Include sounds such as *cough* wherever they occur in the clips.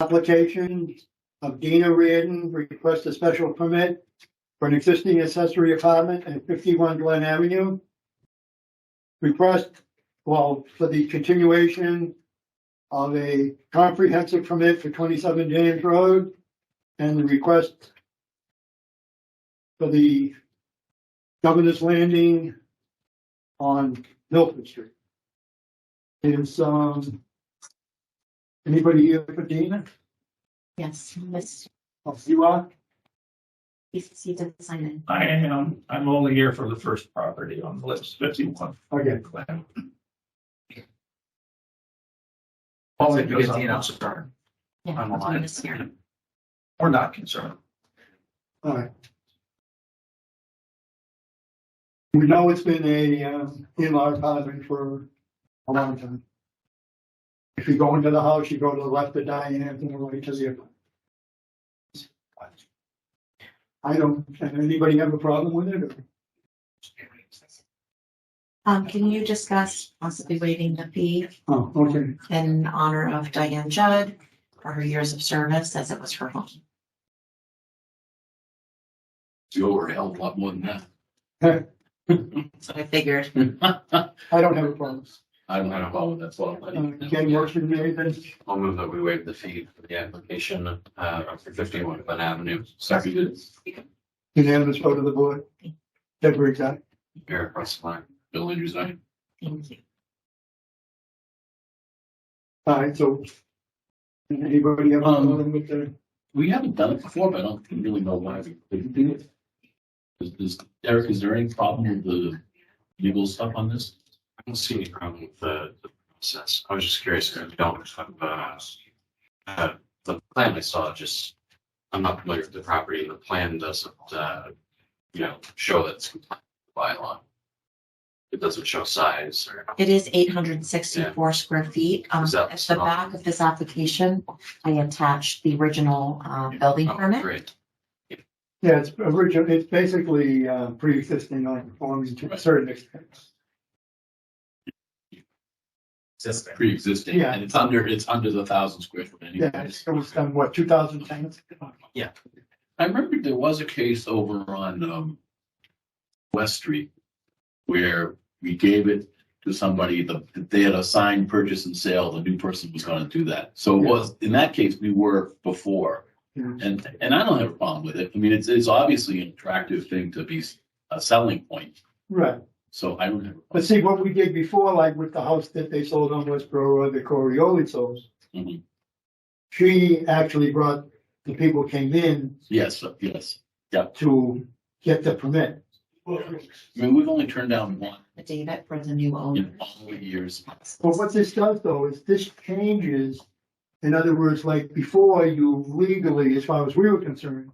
application of Dina Reardon requests a special permit for an existing accessory apartment at fifty-one Glen Avenue. Request, well, for the continuation of a comprehensive permit for twenty-seven James Road and the request for the Governor's Landing on Milford Street. Is, um, anybody here for Dina? Yes, Miss, Oh, You are? he's, he did sign in. I am, I'm only here for the first property on the list, fifty-one. Okay. Only Because because I'm Dina- concerned, Yeah, I'm alive. Miss here. we're not concerned. All right. We know it's been a, um, in-law apartment for a long time. If you go into the house, you go to the left of Diane and the right to the. I don't, can anybody have a problem with it? or- Um, can you discuss possibly waiving the fee Oh, okay, in honor of Diane Judd for her years of service as it was her home? You were held a lot more than So I figured, that. *laughs* I don't have a problem. I don't have a problem with that, so I'll, Uh, let Ken, you- yours should be anything? I'll move that we waive the fee for the application, uh, for fifty-one Glen Avenue. Seconded, unanimous vote of the board. Deborah, aye. Eric Russell, aye. Bill Andrews, aye. thank you. All right, so. Anybody have a problem with the? We haven't done it before, but I don't really know why we couldn't do it. Is, is, Eric, is there any problem with the legal stuff on this? I don't see any problem with the, the process. I was just curious, I don't have, uh, uh, the plan I saw, just, I'm not familiar with the property, and the plan doesn't, uh, you know, show that it's compliant with the bylaw. It doesn't show size or, It is eight hundred and sixty-four square feet. Um, Is that at the small? back of this application, I attached the original, uh, building oh, permit. great, Yeah, it's original, it's basically, uh, pre-existing non-conforming to a certain extent. pre-existing, Yeah. and it's under, it's under the thousand square foot Yeah, anyway. it's- it was done, what, two thousand ten? I remember there was a case over on um West Street where we gave it to somebody, the they had a signed purchase and sale, the new person was gonna do that. So it Yeah. was, in that case, we were before. Yeah. And and I don't have a problem with it. I mean, it's it's obviously an attractive thing to be s- a selling point, Right, so I don't have. a problem. but see, what we did before, like with the house that they sold on Westboro Road, the Coriolis sold. Mhm. She actually brought, the people came in Yes, yes. to get the permit. I mean, we've only turned down one Affidavit for the new in owner. all the years. Well, what this does though is this changes, in other words, like before you legally, as far as we were concerned,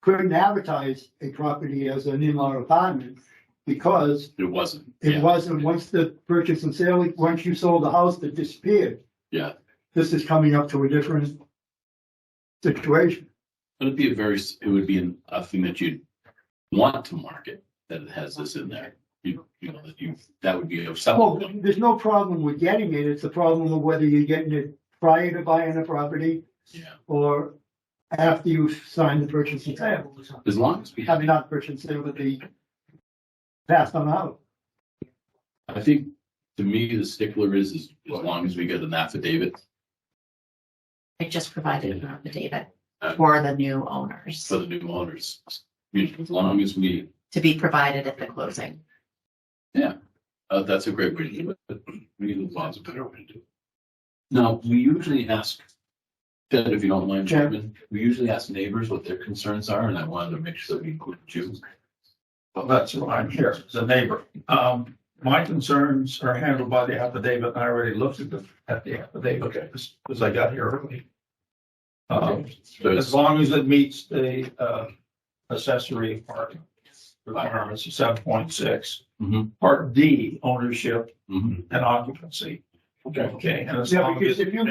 couldn't advertise a property as an in-law apartment because It wasn't. it Yeah. wasn't, once the purchase and sale, once you sold the house, it disappeared. Yeah. This is coming up to a different situation. But it'd be a very, it would be an- a thing that you'd want to market, that it has this in there. You, you know, that you, that would be a Well, selling. there's no problem with getting it, it's a problem of whether you're getting it prior to buying the property Yeah, or after you've signed the purchase and sale. as long as we I have, mean, not purchase and sale, but the passed on out. I think, to me, the stickler is, is as long as we get an affidavit. I just provided an affidavit Uh, for the new owners For the new owners, I mean, as long as we, to be provided at the closing. uh, that's a great way to do it, but we need a a better way to do it. Now, we usually ask, Ted, if you don't mind, Chairman, we usually ask neighbors what their concerns are, and I wanted to make sure that we include you. Well, that's why I'm here, as a neighbor. Um, my concerns are handled by the affidavit, and I already looked at the, at the affidavit, because I got here early. Um, So it's- As long as it meets the uh, accessory apartment requirements of seven point six. Mhm. Part D, ownership mhm. and occupancy. Okay, and as Yeah, long because as if you